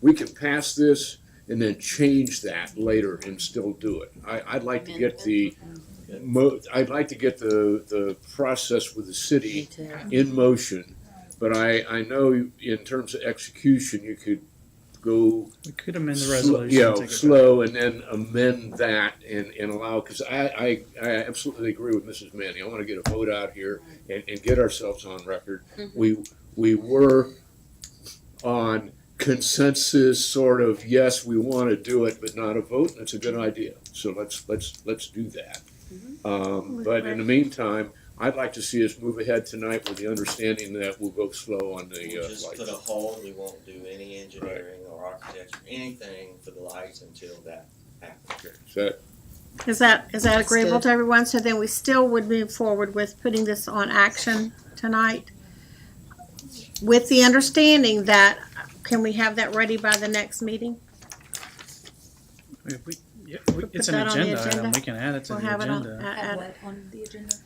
we can pass this and then change that later and still do it. I, I'd like to get the, mo- I'd like to get the, the process with the city in motion. But I, I know in terms of execution, you could go We could amend the sl- resolution. you know, take it back. slow and then amend that and, and allow, because I, I, I absolutely agree with Mrs. Manning. I want to get a vote out here and, and get ourselves on record. We, we were on consensus sort of, yes, we want to do it, but not a vote. That's a good idea. So let's, let's, let's do that. Um, but in the meantime, I'd like to see us move ahead tonight with the understanding that we'll go slow on the, We'll uh, just put a lights. hold, we won't do any engineering or architecture, anything for the lights until that happens. Okay, Is that, Is that, is that That's agreeable good. to everyone? So then we still would move forward with putting this on action tonight? With the understanding that, can we have that ready by the next meeting? I mean, if we- yeah, we- It's Put an that on the agenda item, agenda. we can add it to We'll the have it on, agenda. at, at what on the agenda?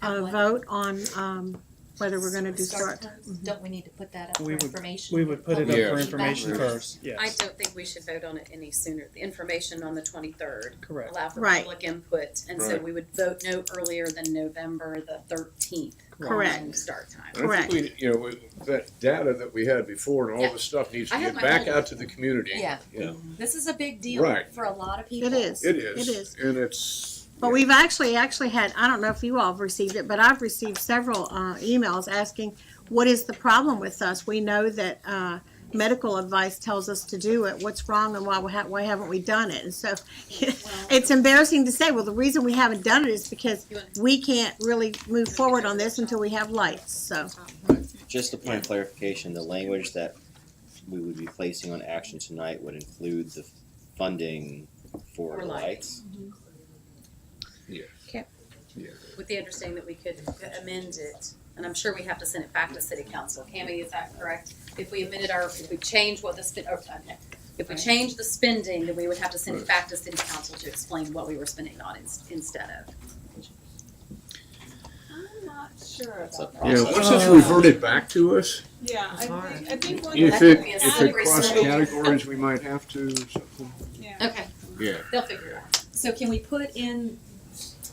a vote on, um, whether we're gonna do Start start. Mm-hmm. times? Don't we need to put that up for We would- information? We would put it up Yeah. for information first, I yes, don't think we should vote on it any sooner. The information on the twenty-third, correct, allow for Right. public input, and so Right. we would vote no earlier than November the thirteenth. Correct. Start time. And I think we, you know, we- that data that we had before and all Yeah. this stuff needs to I get have my back whole- out to the community. Yeah. Yeah, This is a big deal Right. for a lot of people. It is. it is. It is. And it's. But we've actually, actually had, I don't know if you all have received it, but I've received several, uh, emails asking, what is the problem with us? We know that, uh, medical advice tells us to do it. What's wrong and why, we ha- why haven't we done it? And so it's embarrassing to say, well, the reason we haven't done it is because we can't really move forward on this until we have lights, so. Just a point of clarification, the language that we would be placing on action tonight would include the funding for For the lights. With the understanding that we could amend it, and I'm sure we have to send it back to city council. Cammy, is that correct? If we amended our, if we change what the spend, oh, okay. If we change the spending, then we would have to send it back to city council to explain what we were spending it on ins- instead of. I'm not sure It's a about that. Yeah, process. once it's reverted back to us, Yeah, I It's hard. think, I think one. if that it, could be a if it slippery crossed slope. categories, we might have to something. Yeah. Okay. Yeah. They'll figure it out. So can we put in,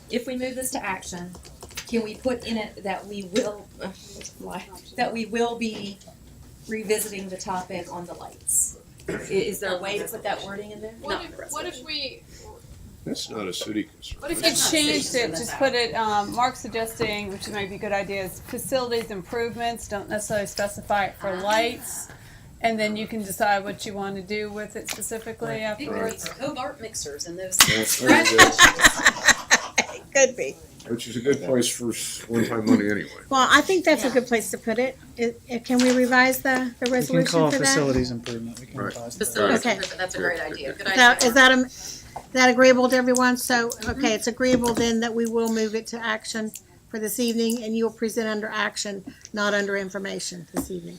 if we move this to action, can we put in it that we will, uh, lie, that we will be revisiting the topic on the lights? I- Is there a way to put that wording in there? What Not the if, what if we, That's not a city concern. what if we That's- It's not changed safe to it, let just that put it, um, Mark's suggesting, which might be a good idea, is facilities improvements, don't necessarily specify it for lights. And then you can decide what you wanna do with it specifically Big words, afterwards. Cobart mixers and those. that's very good. It could be. Which is a good place for s- one-time money anyway. Well, I think that's a good place to put it. It- it- Can we revise the, the we can resolution call for that? facilities improvement, we can Right. pause that. Facilities, Okay. improvement, that's a great idea, good idea. Now, Is that, am- is that agreeable to everyone? So, okay, it's agreeable then that we will move it to action for this evening and you'll present under action, not under information this evening.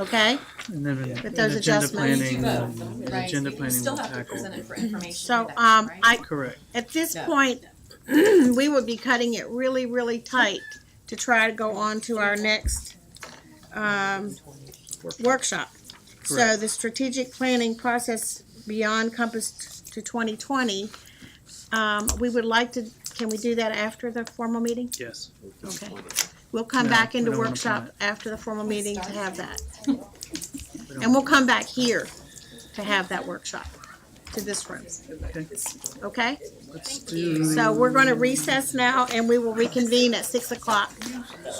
Okay? And then in- With in those agenda adjustments. planning, Both, um, the right? agenda You planning still will have to present tackle, it for information. So, in action, um, right? I, correct, at this No. point, we would be cutting it really, really tight to try to go on to our next, um, workshop. So Correct. the strategic planning process beyond Compass to twenty twenty, um, we would like to, can we do that after the formal meeting? yes. Okay. We'll come No, back we into don't wanna workshop plan after the formal meeting to have that. don't And we'll come back here to have that workshop, to this room, Okay, okay? let's do, So we're gonna recess now and we will reconvene at six o'clock